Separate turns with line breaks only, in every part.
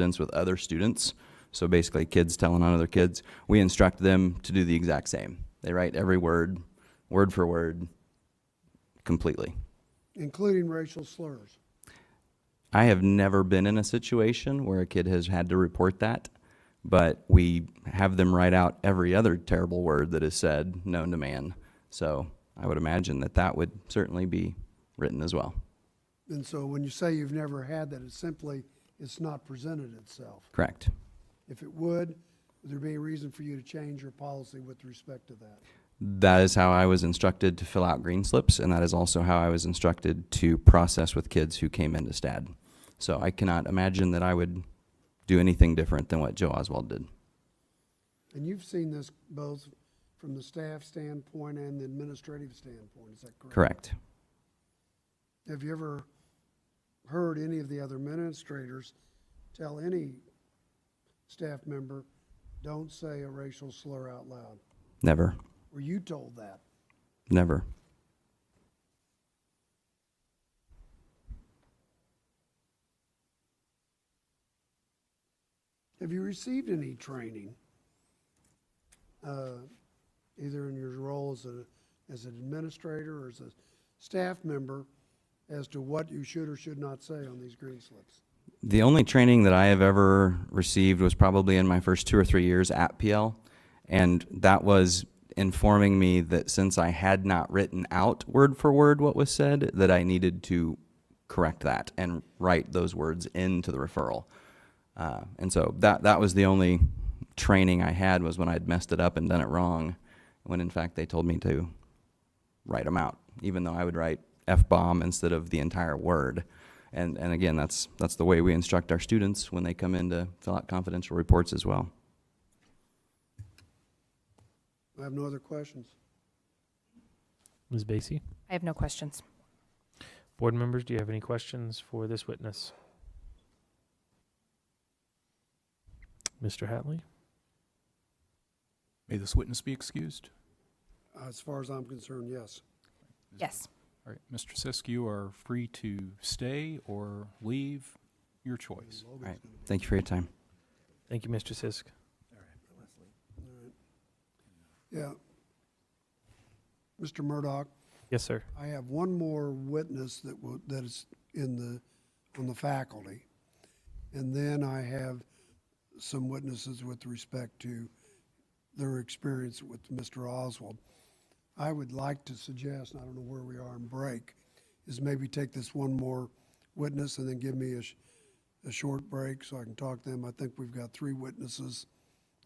students with other students. So basically, kids telling on other kids. We instruct them to do the exact same. They write every word, word for word, completely.
including racial slurs.
I have never been in a situation where a kid has had to report that, but we have them write out every other terrible word that is said known to man. So I would imagine that that would certainly be written as well.
And so when you say you've never had that, it's simply, it's not presented itself.
Correct.
If it would, would there be a reason for you to change your policy with respect to that?
That is how I was instructed to fill out green slips, and that is also how I was instructed to process with kids who came into STAD. So I cannot imagine that I would do anything different than what Joe Oswald did.
And you've seen this both from the staff standpoint and the administrative standpoint, is that correct?
Correct.
Have you ever heard any of the other administrators tell any staff member, don't say a racial slur out loud?
Never.
Were you told that?
Never.
Have you received any training, uh, either in your role as a, as an administrator or as a staff member, as to what you should or should not say on these green slips?
The only training that I have ever received was probably in my first two or three years at PL. And that was informing me that since I had not written out word for word what was said, that I needed to correct that and write those words into the referral. Uh, and so that, that was the only training I had was when I'd messed it up and done it wrong, when in fact they told me to write them out, even though I would write F-bomb instead of the entire word. And, and again, that's, that's the way we instruct our students when they come in to fill out confidential reports as well.
I have no other questions.
Ms. Basie,
I have no questions.
board members, do you have any questions for this witness? Mr. Hatley,
May this witness be excused?
As far as I'm concerned, yes.
Yes.
All right, Mr. Sisk, you are free to stay or leave, your choice.
Logan's
Right.
gonna be-
Thank you for your time.
thank you, Mr. Sisk.
all right. Yeah. Mr. Murdoch,
Yes, sir.
I have one more witness that will, that is in the, on the faculty. And then I have some witnesses with respect to their experience with Mr. Oswald. I would like to suggest, and I don't know where we are in break, is maybe take this one more witness and then give me a, sh- a short break so I can talk to them. I think we've got three witnesses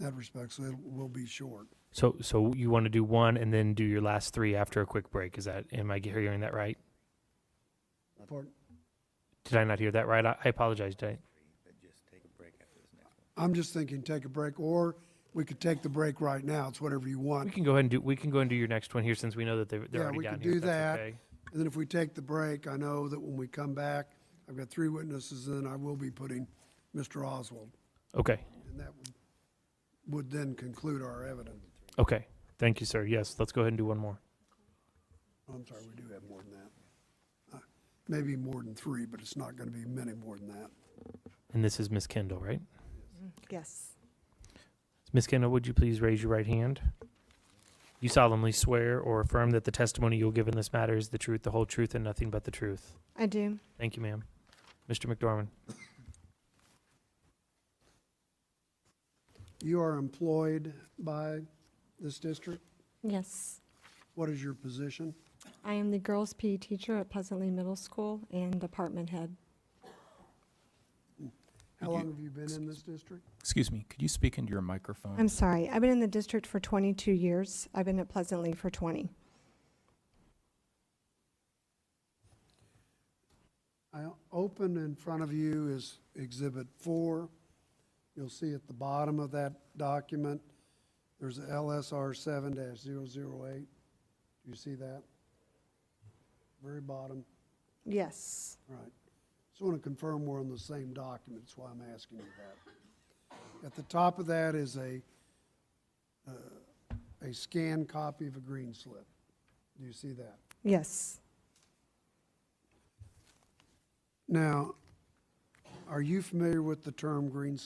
in that respect, so it will be short.
So, so you want to do one and then do your last three after a quick break? Is that, am I ge- hearing that right?
Pardon?
Did I not hear that right? I, I apologize, did I?
I'm just thinking take a break, or we could take the break right now. It's whatever you
We
want.
can go ahead and do, we can go and do your next one here since we know that they're, they're
Yeah,
already
we
down
could
here.
do
if that's
that.
okay.
And then if we take the break, I know that when we come back, I've got three witnesses, and then I will be putting Mr. Oswald.
Okay,
And that would, would then conclude our evidence.
okay. Thank you, sir. Yes, let's go ahead and do one more.
Oh, I'm sorry, we do have more than that. Uh, Maybe more than three, but it's not going to be many more than that.
And this is Ms. Kendall, right?
Yes.
Ms. Kendall, would you please raise your right hand? You solemnly swear or affirm that the testimony you'll give in this matter is the truth, the whole truth, and nothing but the truth.
I do.
Thank you, ma'am. Mr. McDormand,
You are employed by this district.
Yes.
What is your position?
I am the girls' PE teacher at Pleasantly Middle School and department head.
How
You-
long have you been in this district?
Excuse me, could you speak into your microphone?
I'm sorry, I've been in the district for 22 years. I've been at Pleasantly for 20.
I open in front of you is Exhibit 4. You'll see at the bottom of that document, there's a LSR 7-008. Do you see that? Very bottom,
Yes.
right. Just want to confirm we're on the same document, that's why I'm asking you that. At the top of that is a, uh, a scanned copy of a green slip. Do you see that?
Yes.
Now, Are you familiar with the term green